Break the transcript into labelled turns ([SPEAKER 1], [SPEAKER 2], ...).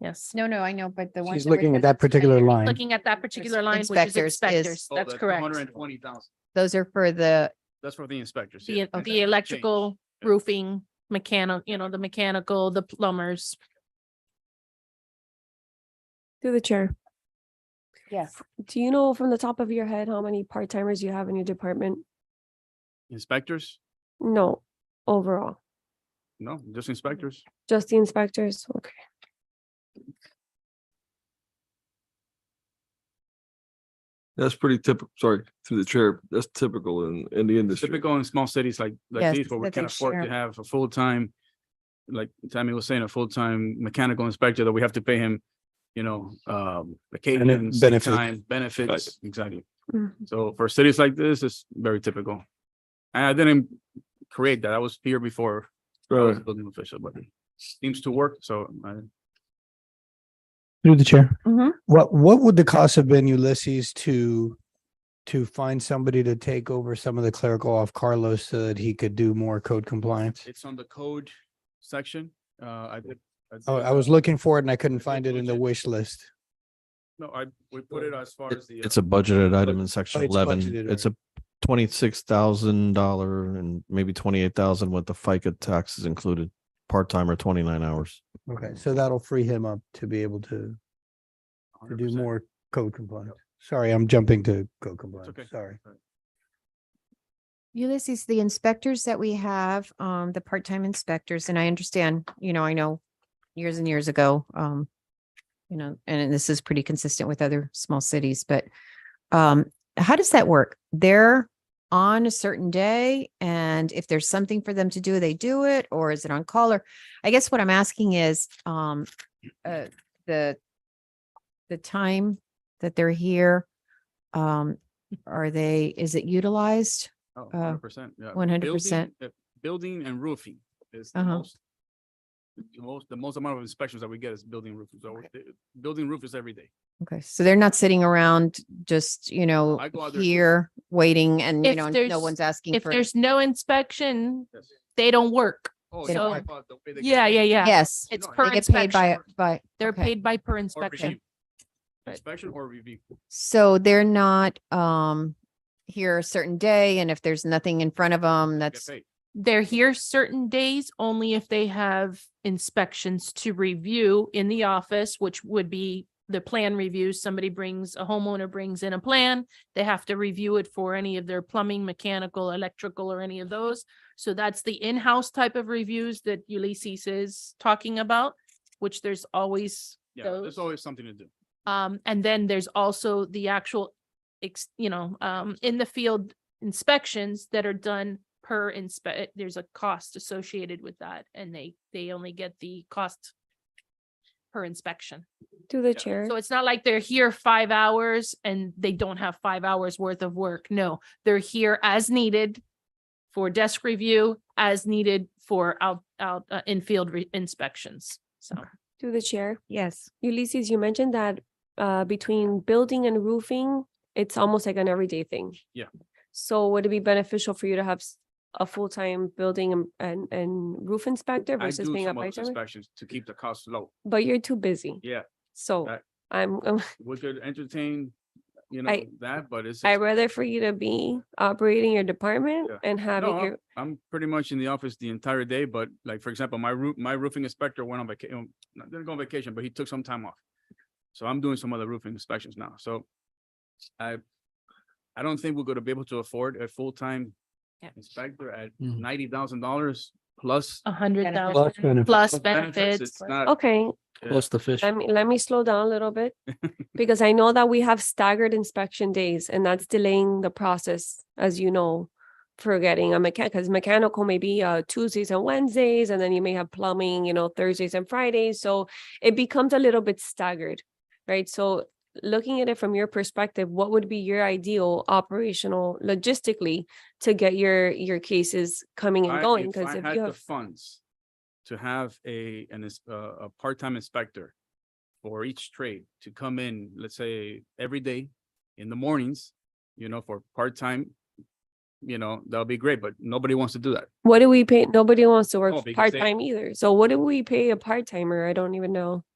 [SPEAKER 1] yes.
[SPEAKER 2] No, no, I know, but the one.
[SPEAKER 3] She's looking at that particular line.
[SPEAKER 1] Looking at that particular line, which is
[SPEAKER 4] Inspectors is-
[SPEAKER 1] inspectors,
[SPEAKER 5] Oh,
[SPEAKER 1] that's
[SPEAKER 5] the
[SPEAKER 1] correct.
[SPEAKER 5] Hundred and twenty thousand.
[SPEAKER 4] Those are for the,
[SPEAKER 5] That's for the inspectors. yeah.
[SPEAKER 1] The, oh,
[SPEAKER 5] And that
[SPEAKER 1] the
[SPEAKER 5] will
[SPEAKER 1] electrical,
[SPEAKER 5] Yeah.
[SPEAKER 1] roofing, mechanic, you know, the mechanical, the plumbers.
[SPEAKER 6] Through the chair,
[SPEAKER 2] Yes.
[SPEAKER 6] do you know from the top of your head how many part-timers you have in your department?
[SPEAKER 5] change. Inspectors?
[SPEAKER 6] No, overall,
[SPEAKER 5] No, just inspectors.
[SPEAKER 6] just the inspectors, okay.
[SPEAKER 7] That's pretty typical, sorry, through the chair, that's typical in, in the industry.
[SPEAKER 5] Typical in small cities like, like
[SPEAKER 4] Yes,
[SPEAKER 5] these, where we
[SPEAKER 4] that they
[SPEAKER 5] can afford to
[SPEAKER 4] share.
[SPEAKER 5] have a full-time, like Tammy was saying, a full-time mechanical inspector that we have to pay him, you know, um, vacations, sick
[SPEAKER 3] benefits.
[SPEAKER 5] time, benefits, exactly.
[SPEAKER 6] Mm.
[SPEAKER 1] Mm-hmm.
[SPEAKER 5] So for cities like this, it's very typical. And I didn't create that. I was here before I was
[SPEAKER 7] Right.
[SPEAKER 5] building official, but it seems to work, so I
[SPEAKER 3] Through the chair.
[SPEAKER 1] Mhm.
[SPEAKER 3] What, what would the cost have been Ulysses to, to find somebody to take over some of the clerical off Carlos so that he could do more code compliance?
[SPEAKER 5] It's on the code section. Uh, I did.
[SPEAKER 3] Oh,
[SPEAKER 5] did,
[SPEAKER 3] I was
[SPEAKER 5] uh,
[SPEAKER 3] looking for it and I couldn't
[SPEAKER 5] Did you
[SPEAKER 3] find it in the
[SPEAKER 5] budget?
[SPEAKER 3] wish list.
[SPEAKER 5] No, I, we put it as far
[SPEAKER 8] It-
[SPEAKER 5] as the. uh,
[SPEAKER 8] It's a budgeted item in section
[SPEAKER 3] it's budgeted,
[SPEAKER 8] eleven. It's
[SPEAKER 3] right.
[SPEAKER 8] a twenty-six thousand dollar and maybe twenty-eight thousand with the FICA taxes included, part-time or twenty-nine hours.
[SPEAKER 3] Okay, so that'll free him up to be able to, to do more code compliance. Sorry, I'm jumping to code compliance.
[SPEAKER 5] okay.
[SPEAKER 3] Sorry.
[SPEAKER 4] Ulysses, the inspectors that we have, um, the part-time inspectors, and I understand, you know, I know years and years ago, um, you know, and this is pretty consistent with other small cities, but, um, how does that work? They're on a certain day and if there's something for them to do, they do it, or is it on call? Or I guess what I'm asking is, um, uh, the, the time that they're here, um, are they, is it utilized? uh,
[SPEAKER 5] Oh, Hundred percent, yeah.
[SPEAKER 4] 100%.
[SPEAKER 5] Building- uh, Building and roofing is the
[SPEAKER 4] Uh-huh.
[SPEAKER 5] most. The most, the most amount of inspections that we get is building roofing. So
[SPEAKER 4] Okay.
[SPEAKER 5] the- building roof is every day.
[SPEAKER 4] Okay, so they're not sitting around just, you know,
[SPEAKER 5] I go out there too.
[SPEAKER 4] here waiting and, you
[SPEAKER 1] If
[SPEAKER 4] know, no
[SPEAKER 1] there's-
[SPEAKER 4] one's asking
[SPEAKER 1] If
[SPEAKER 4] for.
[SPEAKER 1] there's no inspection,
[SPEAKER 5] Yes.
[SPEAKER 1] they don't work.
[SPEAKER 5] Oh,
[SPEAKER 4] They
[SPEAKER 5] yeah,
[SPEAKER 4] don't
[SPEAKER 5] I
[SPEAKER 4] work.
[SPEAKER 5] thought the way they
[SPEAKER 1] Yeah,
[SPEAKER 5] get
[SPEAKER 1] yeah, yeah.
[SPEAKER 4] Yes,
[SPEAKER 1] It's
[SPEAKER 5] No,
[SPEAKER 1] per
[SPEAKER 4] they get paid by,
[SPEAKER 1] inspection.
[SPEAKER 4] by.
[SPEAKER 1] They're
[SPEAKER 4] okay.
[SPEAKER 1] paid by per
[SPEAKER 5] or
[SPEAKER 1] inspection.
[SPEAKER 5] review. Inspection or review.
[SPEAKER 4] So they're not, um, here a certain day and if there's nothing in front of them,
[SPEAKER 5] get
[SPEAKER 4] that's,
[SPEAKER 5] paid.
[SPEAKER 1] They're here certain days only if they have inspections to review in the office, which would be the plan reviews. Somebody brings, a homeowner brings in a plan. They have to review it for any of their plumbing, mechanical, electrical, or any of those. So that's the in-house type of reviews that Ulysses is talking about, which there's always
[SPEAKER 5] Yeah, there's
[SPEAKER 1] those.
[SPEAKER 5] always something to do.
[SPEAKER 1] Um, and then there's also the actual, ex, you know, um, in the field inspections that are done per inspe, there's a cost associated with that and they, they only get the cost per inspection.
[SPEAKER 6] Through the
[SPEAKER 5] so
[SPEAKER 6] chair,
[SPEAKER 1] So it's not like they're here five hours and they don't have five hours worth of work. No, they're here as needed for desk review, as needed for out, out, uh, in-field re- inspections. So
[SPEAKER 6] through the chair.
[SPEAKER 4] yes.
[SPEAKER 6] Ulysses, you mentioned that uh between building and roofing, it's almost like an everyday thing.
[SPEAKER 5] Yeah.
[SPEAKER 6] So would it be beneficial for you to have s- a full-time building and- and and roof inspector
[SPEAKER 5] I
[SPEAKER 6] versus
[SPEAKER 5] do
[SPEAKER 6] paying a
[SPEAKER 5] some of those
[SPEAKER 6] part-timer?
[SPEAKER 5] inspections to keep the costs low.
[SPEAKER 6] But you're too busy,
[SPEAKER 5] Yeah,
[SPEAKER 6] so
[SPEAKER 5] I-
[SPEAKER 6] I'm,
[SPEAKER 5] we could entertain, you know,
[SPEAKER 6] I-
[SPEAKER 5] that, but it's.
[SPEAKER 6] I'd rather for you to be operating your department
[SPEAKER 5] Yeah.
[SPEAKER 6] and having
[SPEAKER 5] No, I'm-
[SPEAKER 6] your,
[SPEAKER 5] I'm pretty much in the office the entire day, but like, for example, my roof, my roofing inspector went on vacation, didn't go on vacation, but he took some time off. So I'm doing some other roofing inspections now, so I, I don't think we're gonna be able to afford a full-time
[SPEAKER 1] Yep.
[SPEAKER 5] inspector at
[SPEAKER 3] Mhm.
[SPEAKER 5] ninety thousand dollars plus.
[SPEAKER 1] a hundred
[SPEAKER 4] Benefits.
[SPEAKER 1] thousand plus
[SPEAKER 5] It's
[SPEAKER 1] benefits.
[SPEAKER 5] not,
[SPEAKER 6] okay,
[SPEAKER 7] Plus the fish.
[SPEAKER 6] let me, let me slow down a little bit. Because I know that we have staggered inspection days and that's delaying the process, as you know. For getting a mechanic, because mechanical may be uh Tuesdays and Wednesdays, and then you may have plumbing, you know, Thursdays and Fridays, so it becomes a little bit staggered. Right, so looking at it from your perspective, what would be your ideal operational logistically? To get your your cases coming and
[SPEAKER 5] I-
[SPEAKER 6] going,
[SPEAKER 5] if I
[SPEAKER 6] because if
[SPEAKER 5] had
[SPEAKER 6] you
[SPEAKER 5] the
[SPEAKER 6] have,
[SPEAKER 5] Funds to have a, an, ins- uh, a part-time inspector for each trade to come in, let's say, every day in the mornings, you know, for part-time, you know, that'll be great, but nobody wants to do that.
[SPEAKER 6] what do we pay, nobody wants to work
[SPEAKER 5] Oh, because they-
[SPEAKER 6] part-time either, so what do we pay a part-timer? I don't even know.